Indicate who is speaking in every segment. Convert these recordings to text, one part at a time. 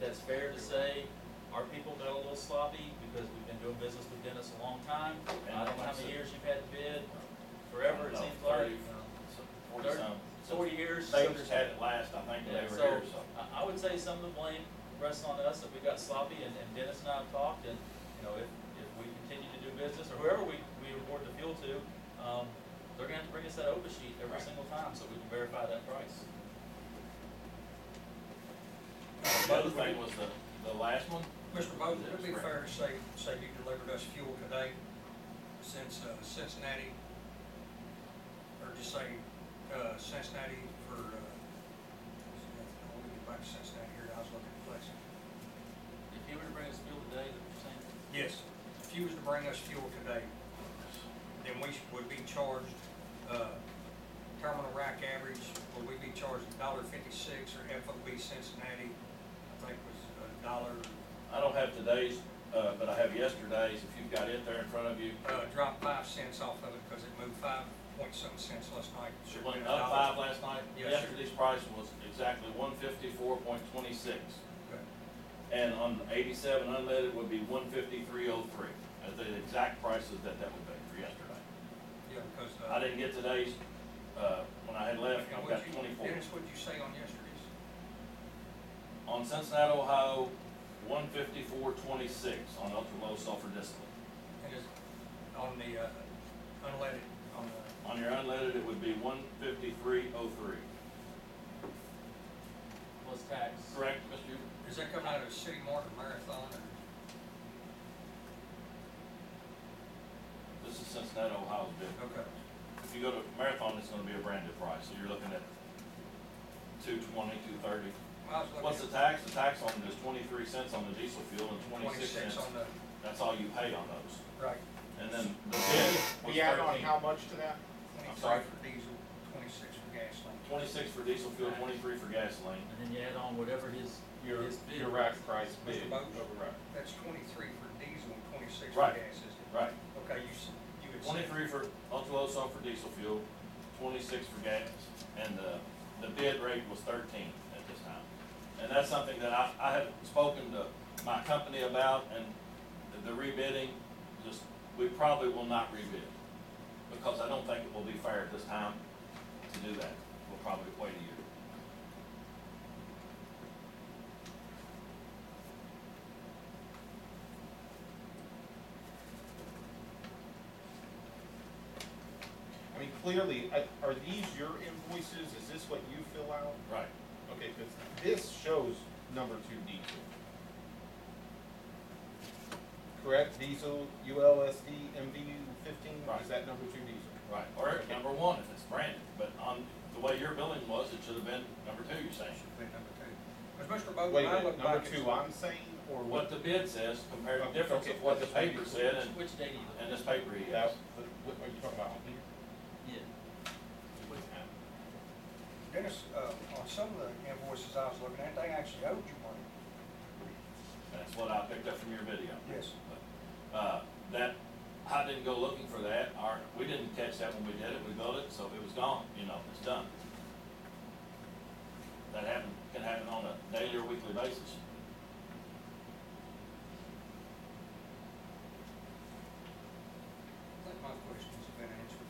Speaker 1: that's fair to say our people got a little sloppy because we've been doing business with Dennis a long time. I don't know how many years you've had to bid, forever it
Speaker 2: No,
Speaker 1: seems like,
Speaker 2: thirty, Forty
Speaker 1: thirty,
Speaker 2: some.
Speaker 1: forty years.
Speaker 2: They just had it last, I think, they
Speaker 1: Yeah,
Speaker 2: were
Speaker 1: so,
Speaker 2: here, so.
Speaker 1: I, I would say some of the blame rests on us if we got sloppy and, and Dennis and I have talked and, you know, if, if we continue to do business or whoever we, we award the fuel to, um, they're gonna have to bring us that OPA sheet every single time so we can verify that price.
Speaker 3: uh,
Speaker 2: The other thing was the, the last one,
Speaker 3: Mr. Moses, it'd be fair to say, say you delivered us fuel today since uh, Cincinnati, or just say uh, Cincinnati for, uh, no, we get back to Cincinnati here, I was looking at places.
Speaker 1: If he were to bring us fuel today, the percent,
Speaker 3: Yes, if you was to bring us fuel today, then we should- would be charged, uh, terminal rack average, would we be charged a dollar fifty-six, or FOB Cincinnati, I think was a dollar,
Speaker 2: I don't have today's, uh, but I have yesterday's, if you've got it there in front of you.
Speaker 3: uh, dropped five cents off of it because it moved five point some cents last night.
Speaker 2: It
Speaker 3: Should've
Speaker 2: went
Speaker 3: been a
Speaker 2: up
Speaker 3: dollar.
Speaker 2: five last night,
Speaker 3: Yes, sir.
Speaker 2: yesterday's price was exactly one fifty-four point twenty-six.
Speaker 3: Okay.
Speaker 2: And on the eighty-seven unleaded would be one fifty-three oh three, at the exact prices that that would be for yesterday.
Speaker 3: Yeah, because. uh,
Speaker 2: I didn't get today's, uh, when I had left,
Speaker 3: and
Speaker 2: I've
Speaker 3: what'd
Speaker 2: got
Speaker 3: you-
Speaker 2: twenty-four.
Speaker 3: Dennis, what'd you say on yesterday's?
Speaker 2: On Cincinnati, Ohio, one fifty-four twenty-six on ultra-low sulfur distillate.
Speaker 3: And is, on the, uh, unleaded, on the,
Speaker 2: On your unleaded, it would be one fifty-three oh three.
Speaker 1: plus tax.
Speaker 2: Correct, Mr. Hubert?
Speaker 3: is that coming out of the city market marathon or?
Speaker 2: This is Cincinnati, Ohio's bid.
Speaker 3: Okay,
Speaker 2: If you go to Marathon, it's gonna be a branded price, so you're looking at two twenty, two thirty.
Speaker 3: well, I was looking.
Speaker 2: What's the
Speaker 3: at
Speaker 2: tax? The tax on it is twenty-three cents on the diesel fuel and twenty-six cents.
Speaker 3: Twenty-six on the,
Speaker 2: That's all you pay on those.
Speaker 3: right,
Speaker 2: And then the bid was
Speaker 4: We add on
Speaker 2: thirteen.
Speaker 4: how much to that?
Speaker 3: twenty-three
Speaker 2: sorry?
Speaker 3: for diesel, twenty-six for gasoline.
Speaker 2: Twenty-six for diesel fuel, twenty-three for gasoline.
Speaker 1: And then you add on whatever his,
Speaker 5: Your,
Speaker 1: his bid.
Speaker 5: your rack price bid
Speaker 3: Mr. Boat?
Speaker 5: over rack.
Speaker 3: That's twenty-three for diesel and twenty-six for
Speaker 2: Right.
Speaker 3: gas, isn't it?
Speaker 2: Right.
Speaker 3: Okay, you, s- you had said.
Speaker 2: Twenty-three for ultra-low sulfur diesel fuel, twenty-six for gas, and the, the bid rate was thirteen at this time. And that's something that I, I have spoken to my company about, and the rebidding, just, we probably will not rebid. Because I don't think it will be fair at this time to do that. We'll probably wait a year.
Speaker 4: I mean, clearly, I- are these your invoices? Is this what you fill out?
Speaker 2: Right.
Speaker 4: Okay, because this shows number two diesel. Correct, diesel, ULSD, MVU fifteen,
Speaker 2: Right.
Speaker 4: is that number two diesel?
Speaker 2: Right. Or number one, if it's branded, but on, the way your billing was, it should have been number two, you're saying.
Speaker 3: Should be number two. Because Mr. Bowden,
Speaker 4: Wait,
Speaker 3: I
Speaker 4: a
Speaker 3: look
Speaker 4: minute,
Speaker 3: back
Speaker 4: number
Speaker 3: at.
Speaker 4: two I'm saying, or
Speaker 2: What
Speaker 4: what?
Speaker 2: the bid says compared to
Speaker 4: Okay,
Speaker 2: difference of
Speaker 4: okay,
Speaker 2: what the
Speaker 4: that's what you-
Speaker 2: paper said and,
Speaker 1: Which day do you look
Speaker 2: and this paper he has.
Speaker 4: That, what are you talking about on here?
Speaker 1: Yeah.
Speaker 3: Dennis, uh, on some of the invoices I was looking at, they actually owed you money.
Speaker 2: That's what I picked up from your video.
Speaker 3: Yes.
Speaker 2: Uh, that, I didn't go looking for that, or, we didn't catch that when we did it, we built it, so it was gone, you know, it's done. That happen, can happen on a daily or weekly basis.
Speaker 3: I think my questions have been answered.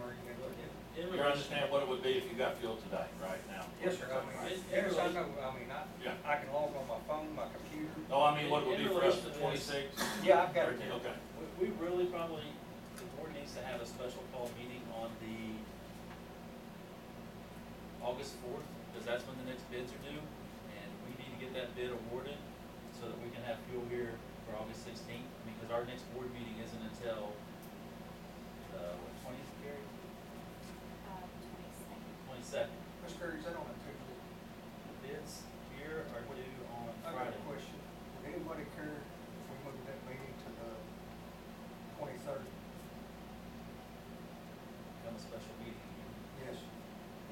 Speaker 3: Murray, you got anything?
Speaker 1: In
Speaker 2: You
Speaker 1: regards-
Speaker 2: understand what it would be if you got fuel today, right now?
Speaker 3: Yes, sir, I mean, yes, I know, I mean, I,
Speaker 2: Yeah.
Speaker 3: I can log on my phone, my computer.
Speaker 2: No, I mean, what it would be for us, the
Speaker 1: In relation
Speaker 2: twenty-six?
Speaker 3: Yeah, I've got it.
Speaker 2: Okay,
Speaker 1: We, we really probably, the board needs to have a special call meeting on the August fourth, because that's when the next bids are due, and we need to get that bid awarded so that we can have fuel here for August sixteenth, because our next board meeting isn't until, uh, what, twentieth, Gary?
Speaker 6: uh, twenty-second.
Speaker 1: Twenty-second.
Speaker 3: Mr. Perry, is that on a Tuesday?
Speaker 1: The bids here are due on
Speaker 3: I got
Speaker 1: Friday.
Speaker 3: a question. Would anybody care if we moved that meeting to the twenty-third?
Speaker 1: Become a special meeting.
Speaker 3: Yes.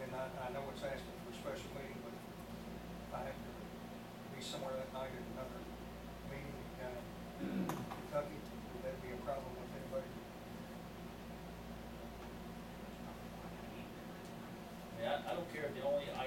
Speaker 3: And I, I know it's asking for a special meeting, but if I have to be somewhere that night at another meeting down in uh, Kentucky, would that be a problem with anybody?
Speaker 1: I mean, I, I don't care if the only item